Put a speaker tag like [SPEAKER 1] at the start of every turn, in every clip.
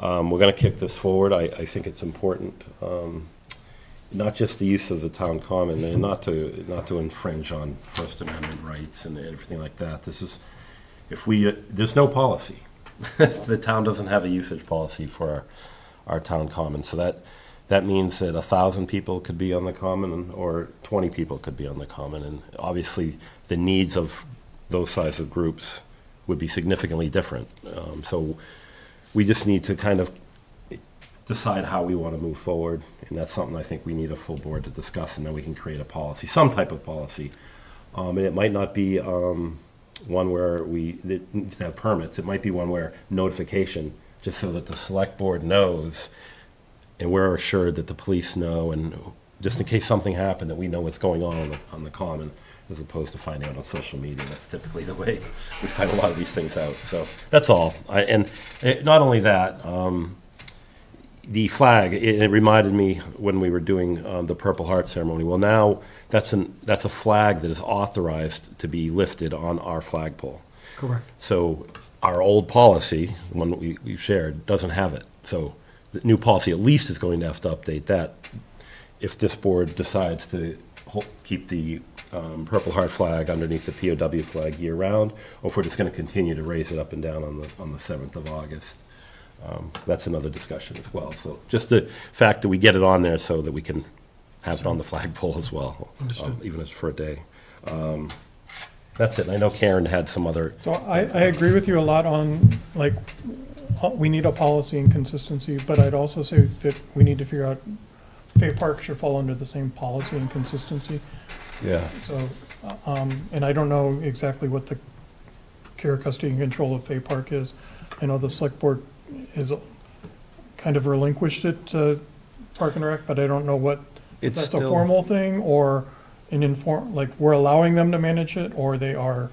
[SPEAKER 1] Um, We're going to kick this forward. I, I think it's important, um, not just the use of the town common, and not to, not to infringe on First Amendment rights and everything like that. This is, if we, uh, there's no policy. The town doesn't have a usage policy for our, our town common. So that, that means that a thousand people could be on the common or twenty people could be on the common. And obviously, the needs of those size of groups would be significantly different. Um, So we just need to kind of decide how we want to move forward. And that's something I think we need a full board to discuss, and then we can create a policy, some type of policy. Um, and it might not be, um, one where we, that needs to have permits. It might be one where notification, just so that the select board knows and we're assured that the police know, and just in case something happened, that we know what's going on on the, on the common, as opposed to finding out on social media. That's typically the way we find a lot of these things out. So that's all. I, and eh, not only that, um, the flag, it, it reminded me when we were doing um, the Purple Heart ceremony. Well, now that's, an, that's a flag that is authorized to be lifted on our flagpole.
[SPEAKER 2] Correct.
[SPEAKER 1] So our old policy, the one that we, we shared, doesn't have it. So the new policy at least is going to have to update that if this board decides to hol- keep the um, Purple Heart flag underneath the POW flag year-round, or if we're just going to continue to raise it up and down on the, on the 7th of August. Um, That's another discussion as well. So just the fact that we get it on there so that we can have it on the flagpole as well, um,
[SPEAKER 2] Understood.
[SPEAKER 1] even if it's for a day. Um, That's it. And I know Karen had some other
[SPEAKER 3] So I, I agree with you a lot on, like, uh, we need a policy and consistency, but I'd also say that we need to figure out, Fay Park should fall under the same policy and consistency,
[SPEAKER 1] Yeah,
[SPEAKER 3] so, uh, um, and I don't know exactly what the care, custody, and control of Fay Park is. I know the select board is kind of relinquished it to Park and Rec, but I don't know what
[SPEAKER 1] it's
[SPEAKER 3] that's a
[SPEAKER 1] still,
[SPEAKER 3] formal thing or an inform, like, we're allowing them to manage it or they are.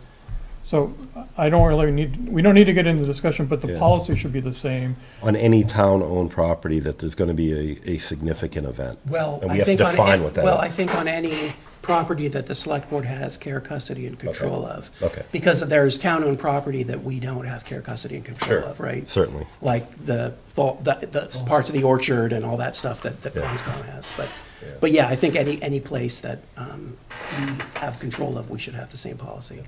[SPEAKER 3] So I don't really need, we don't need to get into the discussion, but the
[SPEAKER 1] Yeah.
[SPEAKER 3] policy should be the same.
[SPEAKER 1] on any town-owned property, that there's gonna be a, a significant event.
[SPEAKER 2] Well,
[SPEAKER 1] And we
[SPEAKER 2] I
[SPEAKER 1] have to
[SPEAKER 2] think on,
[SPEAKER 1] define what that
[SPEAKER 2] well,
[SPEAKER 1] is.
[SPEAKER 2] I think on any property that the select board has care, custody, and control of.
[SPEAKER 1] Okay.
[SPEAKER 2] Because there's town-owned property that we don't have care, custody, and control
[SPEAKER 1] Sure.
[SPEAKER 2] of, right?
[SPEAKER 1] Certainly.
[SPEAKER 2] Like the, fall- the, the parts of the orchard and all that stuff that, that
[SPEAKER 1] Yeah.
[SPEAKER 2] Conscom has, but, but yeah, I think any, any place that, um, we have control of, we should have the same policy.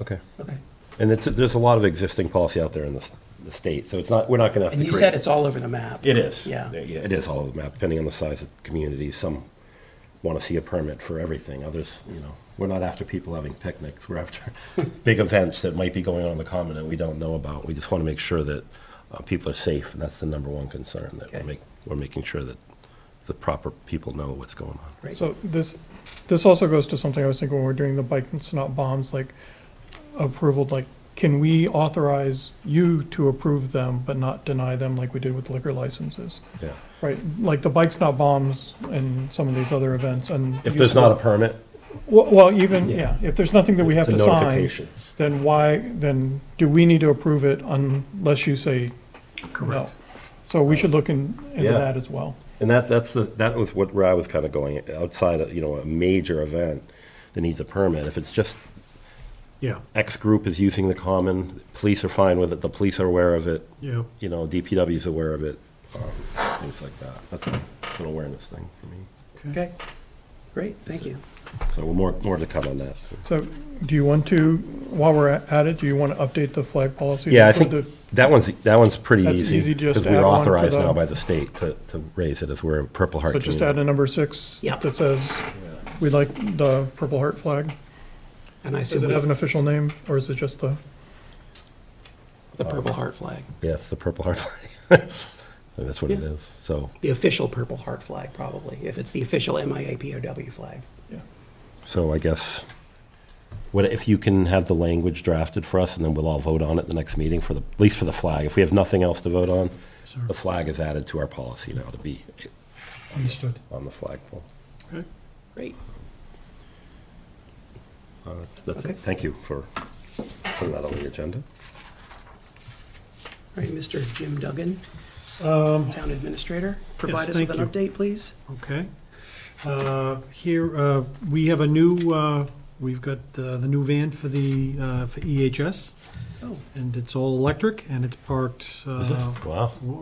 [SPEAKER 1] Okay.
[SPEAKER 2] Okay.
[SPEAKER 1] And it's, there's a lot of existing policy out there in the, s- the state, so it's not, we're not gonna have to
[SPEAKER 2] And
[SPEAKER 1] create.
[SPEAKER 2] you said it's all over the map.
[SPEAKER 1] It is.
[SPEAKER 2] Yeah.
[SPEAKER 1] Yeah, it is all over the map, depending on the size of the community. Some wanna see a permit for everything, others, you know, we're not after people having picnics, we're after big events that might be going on in the common that we don't know about. We just wanna make sure that, uh, people are safe, and that's the number one concern, that we're
[SPEAKER 2] Okay.
[SPEAKER 1] make, we're making sure that the proper people know what's going on.
[SPEAKER 2] Right.
[SPEAKER 3] So this, this also goes to something I was thinking when we're doing the bike and snot bombs, like approval, like, can we authorize you to approve them but not deny them like we did with liquor licenses?
[SPEAKER 1] Yeah.
[SPEAKER 3] Right, like the bike snot bombs and some of these other events and.
[SPEAKER 1] If there's not a permit,
[SPEAKER 3] Well, well, even,
[SPEAKER 1] Yeah.
[SPEAKER 3] yeah, if there's nothing that we have
[SPEAKER 1] it's a
[SPEAKER 3] to sign,
[SPEAKER 1] notification.
[SPEAKER 3] then why, then do we need to approve it unless you say no? So we should look in- into
[SPEAKER 1] Yeah.
[SPEAKER 3] that as well.
[SPEAKER 1] And that, that's the, that was what, where I was kind of going, outside of, you know, a major event that needs a permit. If it's just
[SPEAKER 4] Yeah,
[SPEAKER 1] X group is using the common, police are fine with it, the police are aware of it,
[SPEAKER 4] yeah.
[SPEAKER 1] you know, DPW is aware of it, um, things like that. That's a- it's an awareness thing for me.
[SPEAKER 2] Okay, great, thank you.
[SPEAKER 1] So we're more, more to come on that.
[SPEAKER 3] So do you want to, while we're at it, do you want to update the flag policy? to
[SPEAKER 1] Yeah, I
[SPEAKER 3] include
[SPEAKER 1] think that one's, that one's pretty
[SPEAKER 3] That's
[SPEAKER 1] easy.
[SPEAKER 3] easy, just
[SPEAKER 1] Because
[SPEAKER 3] add
[SPEAKER 1] we're
[SPEAKER 3] on to
[SPEAKER 1] authorized
[SPEAKER 3] the-
[SPEAKER 1] now by the state to, to raise it as we're a Purple
[SPEAKER 3] the-
[SPEAKER 1] Heart
[SPEAKER 3] So just
[SPEAKER 1] community.
[SPEAKER 3] add a number six
[SPEAKER 2] Yeah.
[SPEAKER 3] that says, we like the Purple Heart flag.
[SPEAKER 2] And I
[SPEAKER 3] Does
[SPEAKER 2] assume
[SPEAKER 3] it have an
[SPEAKER 2] we-
[SPEAKER 3] official name or is it just the,
[SPEAKER 2] the
[SPEAKER 3] Um,
[SPEAKER 2] Purple Heart flag,
[SPEAKER 1] Yeah, it's the Purple Heart flag. So That's what it
[SPEAKER 2] Yeah.
[SPEAKER 1] is, so.
[SPEAKER 2] the official Purple Heart flag probably, if it's the official MIAPOW flag.
[SPEAKER 3] yeah,
[SPEAKER 1] So I guess, what, if you can have the language drafted for us, and then we'll all vote on it the next meeting for the, at least for the flag. If we have nothing else to vote on,
[SPEAKER 4] Sir.
[SPEAKER 1] the flag is added to our policy now to be
[SPEAKER 4] Understood.
[SPEAKER 1] on the flagpole.
[SPEAKER 2] Great.
[SPEAKER 1] Uh, that's- That's
[SPEAKER 2] Okay.
[SPEAKER 1] it. Thank you for putting that on the agenda.
[SPEAKER 2] All right, Mr. Jim Duggan, Town Administrator, provide
[SPEAKER 4] Um, yes,
[SPEAKER 2] us with
[SPEAKER 4] thank
[SPEAKER 2] an
[SPEAKER 4] you.
[SPEAKER 2] update, please.
[SPEAKER 4] Okay. Uh, Here, uh, we have a new, uh, we've got uh, the new van for the, uh, for EHS,
[SPEAKER 2] Oh.
[SPEAKER 4] and it's all electric, and it's parked. uh,
[SPEAKER 1] Wow.